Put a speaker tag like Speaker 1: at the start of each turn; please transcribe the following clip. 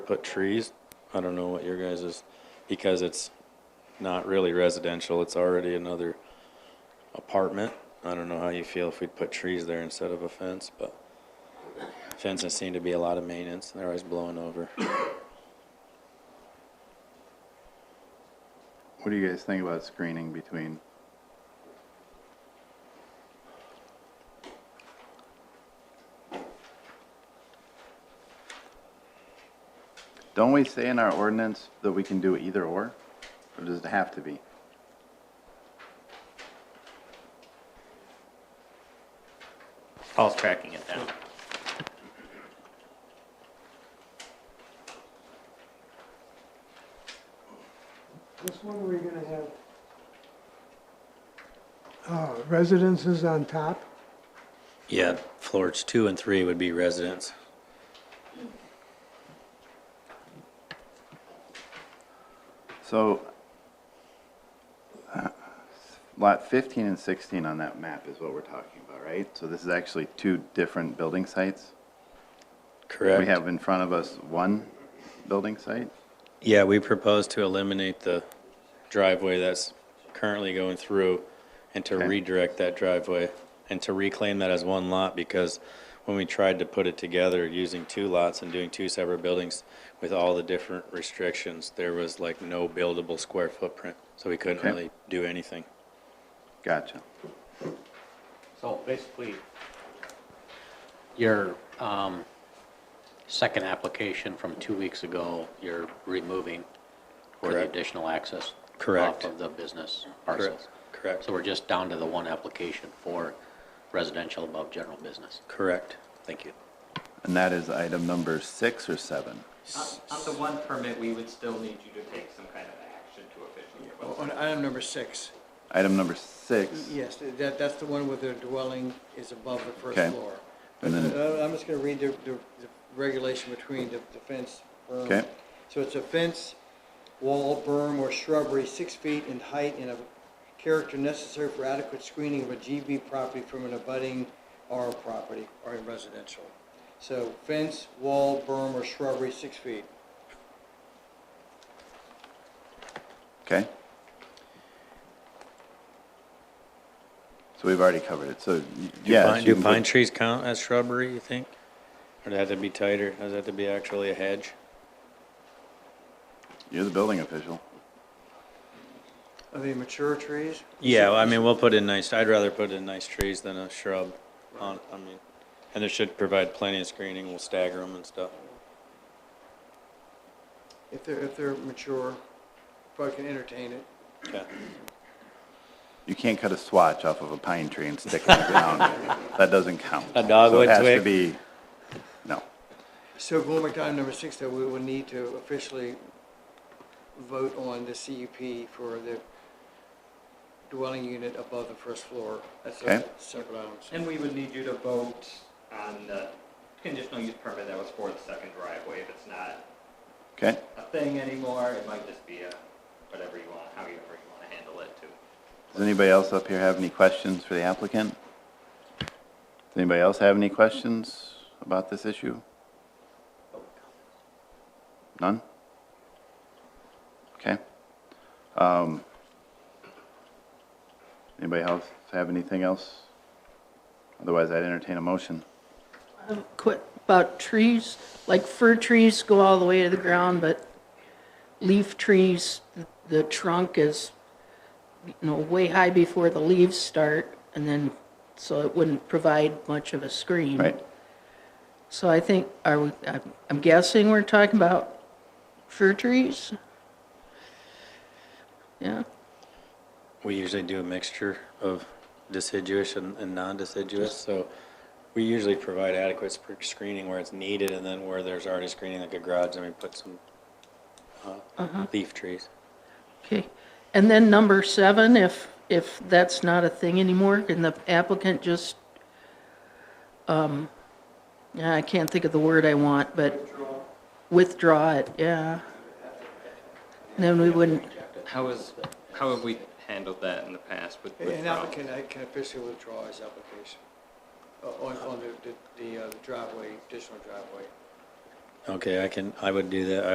Speaker 1: put trees. I don't know what your guys is, because it's not really residential, it's already another apartment. I don't know how you feel if we'd put trees there instead of a fence, but fences seem to be a lot of maintenance, and they're always blowing over.
Speaker 2: What do you guys think about screening between? Don't we say in our ordinance that we can do either or? Or does it have to be?
Speaker 3: Paul's tracking it down.
Speaker 4: This one, we're gonna have uh, residences on top,
Speaker 1: Yeah, floors two and three would be residents.
Speaker 2: So, uh, lot 15 and 16 on that map is what we're talking about, right? So this is actually two different building sites?
Speaker 1: Correct.
Speaker 2: We have in front of us one building site?
Speaker 1: Yeah, we propose to eliminate the driveway that's currently going through and to
Speaker 2: Okay.
Speaker 1: redirect that driveway and to reclaim that as one lot because when we tried to put it together using two lots and doing two separate buildings with all the different restrictions, there was like no buildable square footprint. So we couldn't
Speaker 2: Okay.
Speaker 1: really do anything.
Speaker 2: Gotcha.
Speaker 3: So basically, your um, second application from two weeks ago, you're removing for the
Speaker 1: Correct.
Speaker 3: additional access.
Speaker 1: Correct.
Speaker 3: Off of the business parcels.
Speaker 1: Correct.
Speaker 3: So we're just down to the one application for residential above general business.
Speaker 1: Correct. Thank you.
Speaker 2: And that is item number six or seven?
Speaker 5: On on the one permit, we would still need you to take some kind of action to officially request.
Speaker 6: Oh, On item number six,
Speaker 2: Item number six?
Speaker 6: yes, that, that's the one where the dwelling is above the
Speaker 2: Okay.
Speaker 6: first floor.
Speaker 2: And then-
Speaker 6: Uh, I'm just gonna read the, the the regulation between the the fence. berm.
Speaker 2: Okay.
Speaker 6: So it's a fence, wall, berm, or shrubbery six feet in height and of character necessary for adequate screening of a GB property from an abutting R property or a residential. So fence, wall, berm, or shrubbery six feet.
Speaker 2: Okay. So we've already covered it, so, y-
Speaker 1: Do
Speaker 2: yes.
Speaker 1: pine-
Speaker 2: you
Speaker 1: Do
Speaker 2: can put-
Speaker 1: pine trees count as shrubbery, you think? Or does that have to be tighter? Does that have to be actually a hedge?
Speaker 2: You're the building official.
Speaker 6: I mean, mature trees?
Speaker 1: Yeah, well, I mean, we'll put in nice, I'd rather put in nice trees than a shrub on, I mean, and it should provide plenty of screening, we'll stagger them and stuff.
Speaker 6: If they're, if they're mature, probably can entertain it.
Speaker 1: Yeah,
Speaker 2: You can't cut a swatch off of a pine tree and stick it in the ground. That doesn't count.
Speaker 1: A dogwood
Speaker 2: So it has
Speaker 1: twig?
Speaker 2: to be, no.
Speaker 6: So going back to item number six, though, we will need to officially vote on the CUP for the dwelling unit above the first floor. That's a
Speaker 2: Okay.
Speaker 6: separate item.
Speaker 5: And we would need you to vote on the conditional use permit that was for the second driveway. If it's not
Speaker 2: Okay,
Speaker 5: a thing anymore, it might just be a, whatever you want, however you want to handle it too.
Speaker 2: does anybody else up here have any questions for the applicant? Does anybody else have any questions about this issue? None? Okay. Um, Anybody else have anything else? Otherwise, I'd entertain a motion.
Speaker 7: Quit about trees, like fir trees go all the way to the ground, but leaf trees, the- the trunk is, you know, way high before the leaves start, and then, so it wouldn't provide much of a screen.
Speaker 2: Right,
Speaker 7: So I think, are we, I'm- I'm guessing we're talking about fir trees? Yeah,
Speaker 1: we usually do a mixture of deciduous and, and non-deciduous, so we usually provide adequate sp- screening where it's needed, and then where there's already screening like a garage, then we put some, uh, leaf trees.
Speaker 7: okay. And then number seven, if, if that's not a thing anymore, can the applicant just, um, yeah, I can't think of the word I want, but withdraw it, yeah. Then we wouldn't,
Speaker 5: How is, how have we handled that in the past with
Speaker 6: An applicant I can officially withdraw his application uh, on, on the, the- the uh, driveway, additional driveway.
Speaker 1: Okay, I can, I would do that.